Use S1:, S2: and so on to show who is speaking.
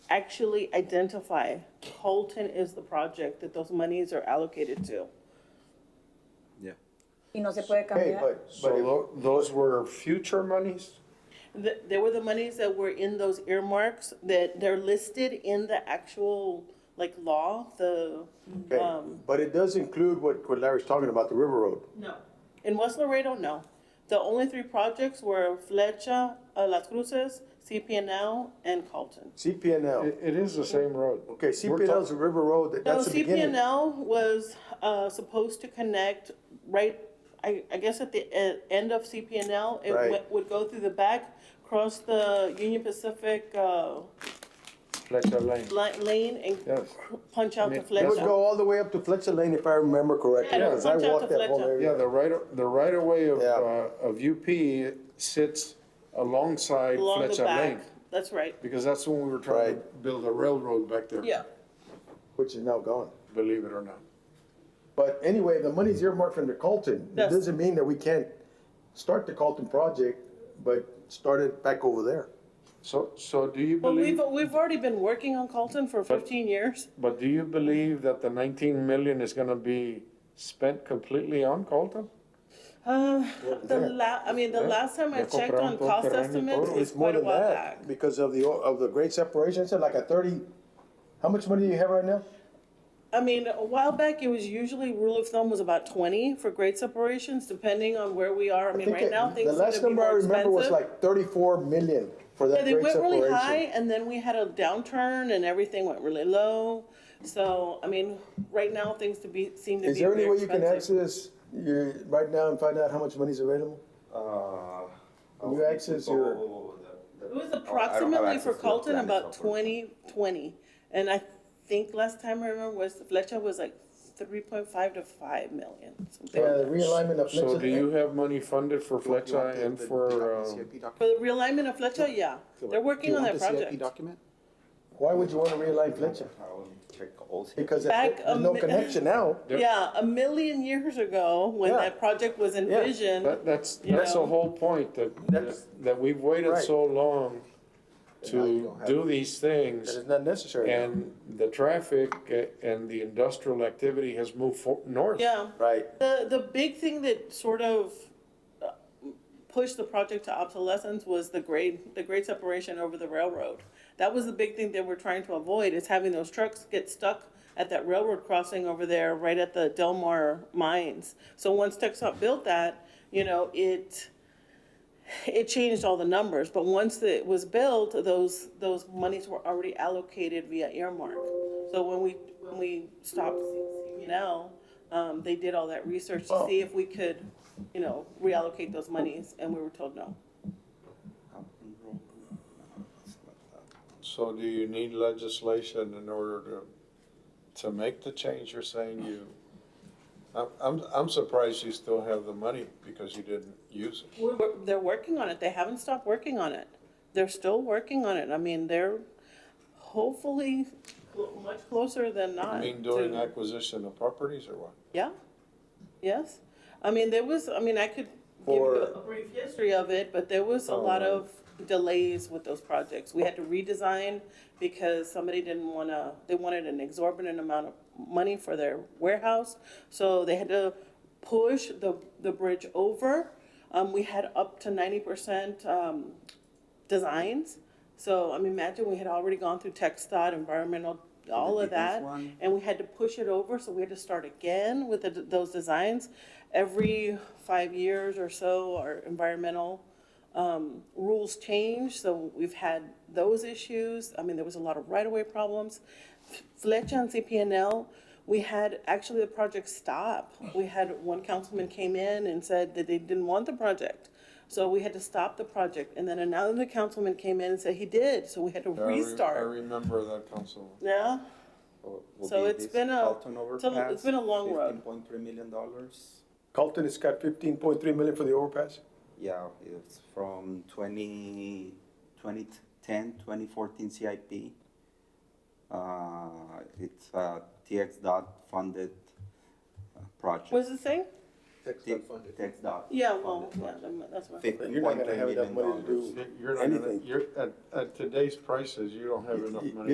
S1: actually identify Colton is the project that those monies are allocated to.
S2: Yeah.
S3: Y no se puede
S4: Hey,
S3: cambiar.
S4: but, but if-
S5: So tho- those were future monies?
S1: Th there were the monies that were in those earmarks that they're listed in the actual, like, law, the,
S4: okay,
S1: Um,
S4: but it does include what, what Larry's talking about, the River Road.
S1: No. In West Laredo, no. The only three projects were Flecha, uh, Las Cruces, CPNL, and Colton.
S4: CPNL,
S5: It, it is the same road.
S4: okay,
S5: We're
S4: CPNL is the
S5: talk-
S4: River Road, that-
S1: No,
S4: that's the beginning.
S1: CPNL was, uh, supposed to connect right, I, I guess at the e- end of CPNL, it
S4: Right.
S1: went- would go through the back, cross the Union Pacific, uh,
S5: Fletcher Lane.
S1: li- lane and
S5: Yes.
S1: punch out to
S5: And it- that
S4: It would
S1: Flecha.
S4: go all the way up to Fletcher Lane if I remember correctly,
S1: Yeah,
S4: because I
S1: punch out
S4: walked
S1: to
S4: that whole
S1: Fletcher.
S4: area.
S5: Yeah, the right, the right of way of,
S4: Yeah.
S5: uh, of UP sits alongside
S1: Along the
S5: Fletcher Lane.
S1: back, that's right,
S5: Because that's when we were trying to build a railroad back there.
S1: yeah.
S4: Which is now gone.
S5: Believe it or not.
S4: But anyway, the money's earmarked from the Colton. It
S1: Yes.
S4: doesn't mean that we can't start the Colton project, but start it back over there.
S5: So, so do you
S1: Well, we've,
S5: believe,
S1: we've already been working on Colton for fifteen years.
S5: but do you believe that the nineteen million is gonna be spent completely on Colton?
S1: Uh, the
S4: there.
S1: la, I mean, the last time I
S5: Ya
S1: checked on
S5: compraron todo
S1: cost
S5: terreno y
S1: estimates
S5: todo.
S1: was quite a while back.
S4: Because of the, of the great separation, it's like a thirty, how much money do you have right now?
S1: I mean, a while back, it was usually rule of thumb was about twenty for grade separations, depending on where we are. I mean,
S4: think
S1: right
S4: it-
S1: now, things
S4: The
S1: seem to
S4: last
S1: be
S4: number I
S1: more
S4: remember was
S1: expensive.
S4: like thirty-four million for that
S1: Yeah, they
S4: great
S1: went really
S4: separation.
S1: high and then we had a downturn and everything went really low. So, I mean, right now, things to be, seem to be
S4: Is there any
S1: very
S4: way you can
S1: expensive.
S4: access, your right now and find out how much money's available?
S6: Uh,
S4: Can you
S6: oh,
S4: access
S6: oh,
S4: your-
S6: oh, oh, the-
S1: It
S6: the-
S1: was
S6: I don't have
S1: approximately
S6: access
S1: for
S6: to the
S1: Colton
S6: plan
S1: about
S6: itself.
S1: twenty, twenty. And I think last time I remember was Fletcher was like three point five to five million, something
S4: Yeah,
S1: like that.
S4: the Uh, realignment of.
S5: So do
S4: Lexington-
S5: you have money funded for Fletcher and for, uh,
S1: For the realignment of Fletcher, yeah, they're working on that project.
S7: document?
S4: Why would you want to realign Fletcher?
S6: I will need to check all the-
S4: Because
S1: Back
S4: if there's
S1: a
S4: no
S1: mi-
S4: connection now.
S1: Yeah, a million years ago, when
S4: Yeah.
S1: that project was envisioned,
S5: that, that's,
S1: You
S5: that's the
S1: know.
S5: whole point,
S4: That's-
S5: that, that we've waited
S4: Right.
S5: so long
S4: now you
S5: to
S4: don't have
S5: do
S4: it.
S5: these things.
S4: That is not necessary.
S5: And the traffic uh, and the industrial activity has moved for, north.
S1: yeah.
S4: Right.
S1: The, the big thing that sort of uh, pushed the project to obsolescence was the grade, the grade separation over the railroad. That was the big thing that we're trying to avoid, is having those trucks get stuck at that railroad crossing over there, right at the Delmar mines. So once Texas built that, you know, it, it changed all the numbers, but once it was built, those, those monies were already allocated via earmark. So when we, when we stopped CPNL, um, they did all that research to see if we could, you know, reallocate those monies, and we were told no.
S5: So do you need legislation in order to, to make the change you're saying you? I'm, I'm, I'm surprised you still have the money because you didn't use it.
S1: We're, we're- they're working on it, they haven't stopped working on it. They're still working on it, I mean, they're hopefully cl- much closer than not.
S5: I mean, during
S1: to-
S5: acquisition of properties or what?
S1: Yeah, yes. I mean, there was, I mean, I could give you
S4: For-
S1: a brief history of it, but there was a lot of delays with those projects. We had to redesign because somebody didn't wanna, they wanted an exorbitant amount of money for their warehouse. So they had to push the, the bridge over. Um, we had up to ninety percent, um, designs. So, I mean, imagine we had already gone through tech stud, environmental, all of that, and we had to push it over, so we had to start again with the- those designs. Every five years or so, our environmental, um, rules change, so we've had those issues. I mean, there was a lot of right-of-way problems. Fletcher and CPNL, we had, actually, the project stop. We had, one councilman came in and said that they didn't want the project. So we had to stop the project, and then another councilman came in and said he did, so we had to
S5: I re- I
S1: restart.
S5: remember that council.
S1: Yeah,
S6: Will- Oh, will
S1: So
S6: be
S1: it's
S6: this
S1: been a-
S6: Alton
S1: it's a- it's been a long
S6: overpass,
S1: road.
S6: $15.3 million dollars.
S4: Colton has got fifteen point three million for the overpass.
S6: Yeah, it's from 20, 2010, 2014 CIP. Uh, It's a TX dot funded uh, project.
S1: was the thing?
S6: Tax dot.
S1: Yeah, well,
S6: funded
S1: yeah,
S6: project.
S1: that's what.
S4: You're not gonna
S6: 15.3
S4: have enough
S6: million
S4: money to
S6: dollars.
S4: do
S5: You're not gonna,
S4: anything.
S5: you're, at, at today's prices, you don't have enough money.